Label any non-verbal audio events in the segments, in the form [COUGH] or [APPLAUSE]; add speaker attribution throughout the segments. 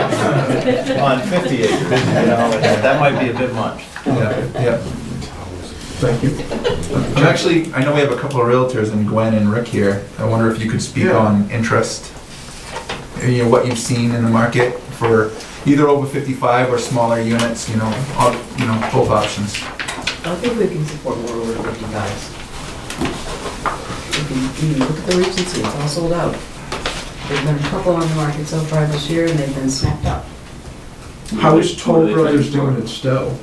Speaker 1: on 50 acres, you know, and that might be a bit much.
Speaker 2: Yeah, yeah. Thank you. I'm actually, I know we have a couple of realtors and Gwen and Rick here. I wonder if you could speak
Speaker 1: Yeah.
Speaker 2: on interest, you know, what you've seen in the market for either over 55 or smaller units, you know, all, you know, both options.
Speaker 3: I think we can support more over fifty guys. If you, you look at the Regency, it's all sold out. There's been a couple on the market so far this year and they've been snapped up.
Speaker 4: How is Toll Brothers doing in Stowe?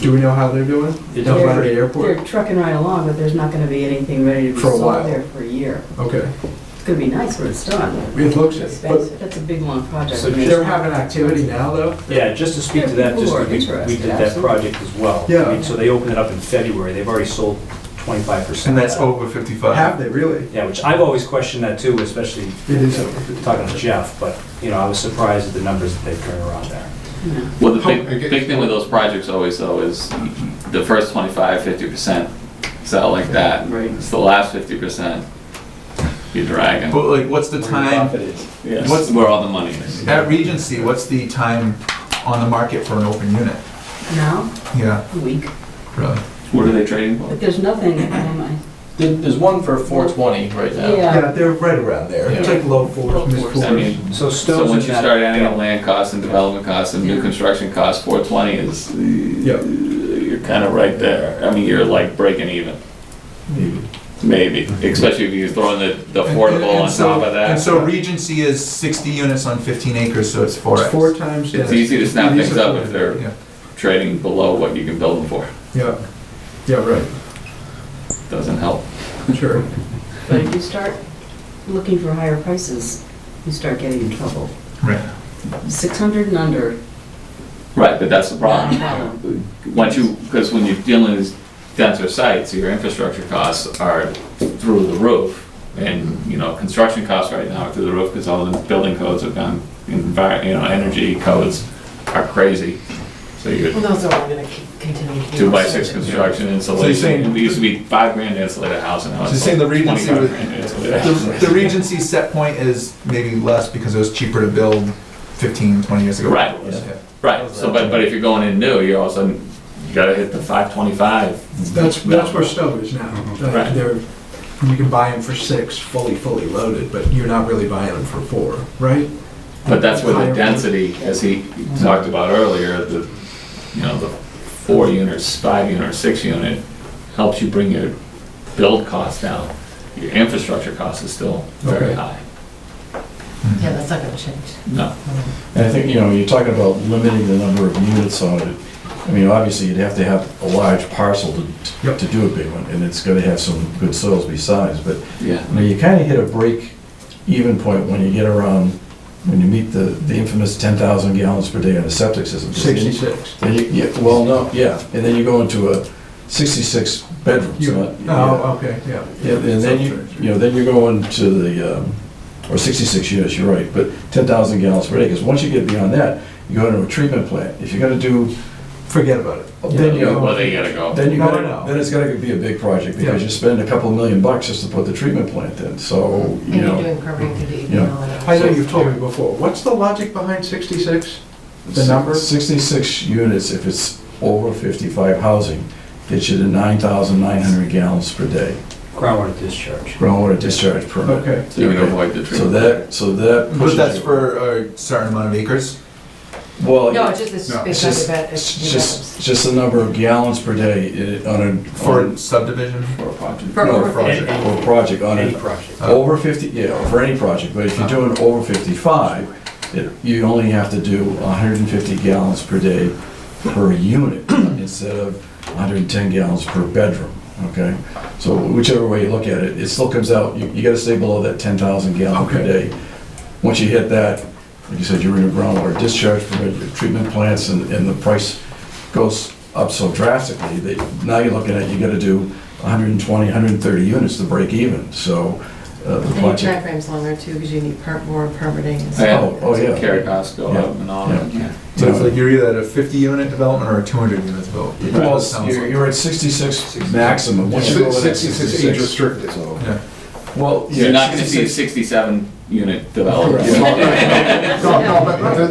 Speaker 4: Do we know how they're doing?
Speaker 3: They're-
Speaker 4: Down by the airport?
Speaker 3: They're trucking right along, but there's not gonna be anything ready to be
Speaker 4: For a
Speaker 3: sold
Speaker 4: while.
Speaker 3: there for a year.
Speaker 4: Okay,
Speaker 3: It's gonna be nice when it's done.
Speaker 4: it looks it, but
Speaker 3: That's a big, long project.
Speaker 5: So
Speaker 4: they're having activity now, though?
Speaker 5: Yeah, just to speak to
Speaker 3: Yeah,
Speaker 5: that, just,
Speaker 3: people are
Speaker 5: we we
Speaker 3: interested,
Speaker 5: did that project as well.
Speaker 4: Yeah.
Speaker 5: I mean, So they opened it up in February, they've already sold 25%.
Speaker 2: And that's over 55.
Speaker 4: Have they really?
Speaker 5: Yeah, which I've always questioned that too, especially
Speaker 4: It is over.
Speaker 5: talking to Jeff, but, you know, I was surprised at the numbers that they've turned around there.
Speaker 3: Yeah.
Speaker 6: Well, the
Speaker 2: Oh, okay.
Speaker 6: big, big thing with those projects always though is the first 25, 50% sell like that.
Speaker 3: Right.
Speaker 6: It's the last 50% you're dragging.
Speaker 2: But like, what's the time,
Speaker 6: What's where all the money is?
Speaker 2: at Regency, what's the time on the market for an open unit?
Speaker 3: Now,
Speaker 2: Yeah,
Speaker 3: a week,
Speaker 2: really.
Speaker 6: What are they trading for?
Speaker 3: but there's nothing, um, I,
Speaker 7: There- There's one for 420 right now.
Speaker 3: yeah,
Speaker 4: they're right around there. It's like low
Speaker 3: Low
Speaker 4: fours, mid
Speaker 3: fours.
Speaker 4: fours.
Speaker 6: I mean,
Speaker 5: So
Speaker 6: so
Speaker 5: Stowe's
Speaker 6: once
Speaker 5: in
Speaker 6: you
Speaker 5: that-
Speaker 6: start adding in land costs and development costs and new
Speaker 3: Yeah.
Speaker 6: construction costs, 420 is,
Speaker 4: Yeah.
Speaker 6: you're kind of right there. I mean, you're like breaking even. Maybe, especially if you throw in the the affordable on
Speaker 2: And so-
Speaker 6: top of
Speaker 2: And
Speaker 6: that.
Speaker 2: so Regency is 60 units on 15 acres, so it's 4X.
Speaker 4: It's four times that.
Speaker 6: It's easy to snap
Speaker 4: It is
Speaker 6: things
Speaker 4: a
Speaker 6: up
Speaker 4: four.
Speaker 6: if they're-
Speaker 2: Yeah,
Speaker 6: Trading below what you can build them for,
Speaker 4: Yeah, yeah, right,
Speaker 6: doesn't help.
Speaker 4: sure.
Speaker 3: but if you start looking for higher prices, you start getting in trouble.
Speaker 2: right.
Speaker 3: Six hundred and under,
Speaker 6: Right, but that's the
Speaker 3: not a
Speaker 6: problem.
Speaker 3: problem.
Speaker 6: Once you, because when you're dealing with denser sites, your infrastructure costs are through the roof. And, you know, construction costs right now are through the roof because all the building codes have gone, envi- you know, energy codes are crazy. So you're
Speaker 8: Well, those are all gonna c- continue. to be
Speaker 6: two by
Speaker 8: also-
Speaker 6: six construction
Speaker 2: saying-
Speaker 6: insulation. We used to be five grand to insulate a house and now
Speaker 2: So
Speaker 6: it's
Speaker 2: you're saying the
Speaker 6: like
Speaker 2: Regency
Speaker 6: twenty-five
Speaker 2: would-
Speaker 6: grand to insulate a house.
Speaker 2: The the Regency set point is maybe less because it was cheaper to build 15, 20 years ago.
Speaker 6: Right.
Speaker 2: Yeah.
Speaker 6: Right, so but, but if you're going in new, you're all of a sudden, you gotta hit the five twenty-five.
Speaker 4: That's, that's where Stowe is now. Uh,
Speaker 6: Right.
Speaker 4: They're, you can buy them for six, fully, fully loaded, but you're not really buying them for four, right?
Speaker 6: But that's where the
Speaker 4: Higher-
Speaker 6: density, as he talked about earlier, the, you know, the four units, five unit, or six unit, helps you bring your build costs down. Your infrastructure cost is still very
Speaker 4: Okay.
Speaker 6: high.
Speaker 8: Yeah, that's not gonna change.
Speaker 6: No,
Speaker 9: And I think, you know, you're talking about limiting the number of units on it. I mean, obviously, you'd have to have a large parcel to,
Speaker 4: Yep.
Speaker 9: to do a big one, and it's gonna have some good soils besides, but,
Speaker 6: yeah.
Speaker 9: you know, you kinda hit a break even point when you get around, when you meet the, the infamous ten thousand gallons per day on a septic system.
Speaker 4: Sixty-six.
Speaker 9: Then you, yeah, well, no, yeah, and then you go into a sixty-six bedrooms,
Speaker 4: You,
Speaker 9: not.
Speaker 4: oh, okay, yeah.
Speaker 9: Yeah, and then you, you know, then you're going to the, um, or 66 units, you're right, but 10,000 gallons per day, because once you get beyond that, you go into a treatment plant. If you're gonna do,
Speaker 4: Forget about it.
Speaker 9: then you,
Speaker 6: Well, then you gotta go.
Speaker 9: then you
Speaker 4: No, no,
Speaker 9: gotta,
Speaker 4: no.
Speaker 9: then it's gotta be a big project, because
Speaker 4: Yeah.
Speaker 9: you spend a couple million bucks just to put the treatment plant in, so,
Speaker 8: And
Speaker 9: you
Speaker 8: you're
Speaker 9: know.
Speaker 8: doing permitting through the
Speaker 9: Oh, Yeah.
Speaker 8: email and.
Speaker 4: I know you've told me before. What's the logic behind sixty-six? The number?
Speaker 9: 66 units, if it's over 55 housing, gets you to 9,900 gallons per day,
Speaker 5: Groundwater discharge.
Speaker 9: groundwater discharge permit.
Speaker 4: Okay.
Speaker 6: So you can avoid the
Speaker 9: So
Speaker 6: treatment.
Speaker 9: that, so that.
Speaker 2: But
Speaker 9: pushes
Speaker 2: that's
Speaker 9: you-
Speaker 2: for a certain amount of acres.
Speaker 9: Well.
Speaker 8: No, it's just, it's
Speaker 2: No,
Speaker 9: It's
Speaker 8: based on
Speaker 9: just,
Speaker 8: the,
Speaker 9: it's just, just the number of gallons per day i- on a.
Speaker 2: For
Speaker 9: on-
Speaker 2: a subdivision?
Speaker 6: For a project.
Speaker 8: For
Speaker 9: no,
Speaker 8: over
Speaker 2: for a
Speaker 5: Any-
Speaker 2: project.
Speaker 9: For a project, on
Speaker 5: Any
Speaker 9: a,
Speaker 5: project.
Speaker 9: over fifty, yeah, for any project, but if you're doing over fifty-five, it, you only have to do hundred and fifty gallons per day per unit instead of hundred and ten gallons per bedroom, okay? So whichever way you look at it, it still comes out, you, you gotta stay below that ten thousand gallon per
Speaker 4: Okay.
Speaker 9: day. Once you hit that, like you said, you're in a groundwater discharge permit, your treatment plants, and, and the price goes up so drastically that now you're looking at, you gotta do 120, 130 units to break even, so uh, the
Speaker 8: and your
Speaker 9: budget.
Speaker 8: timeframe's longer too, because you need per- more permitting and
Speaker 6: Yeah.
Speaker 8: stuff.
Speaker 9: Oh, oh, yeah.
Speaker 6: Carry costs go up and all that, yeah.
Speaker 2: So it's like you're either at a 50-unit development or a 200-unit development.
Speaker 9: Well,
Speaker 2: Sounds
Speaker 9: you're
Speaker 2: like-
Speaker 9: you're at 66 maximum. Once you go over that 66
Speaker 2: Yeah.
Speaker 9: Well.
Speaker 6: You're
Speaker 9: yeah,
Speaker 6: not gonna see
Speaker 9: 66
Speaker 6: sixty-seven
Speaker 10: unit development.
Speaker 4: [LAUGHS]
Speaker 6: Correct.
Speaker 4: No, no, but- but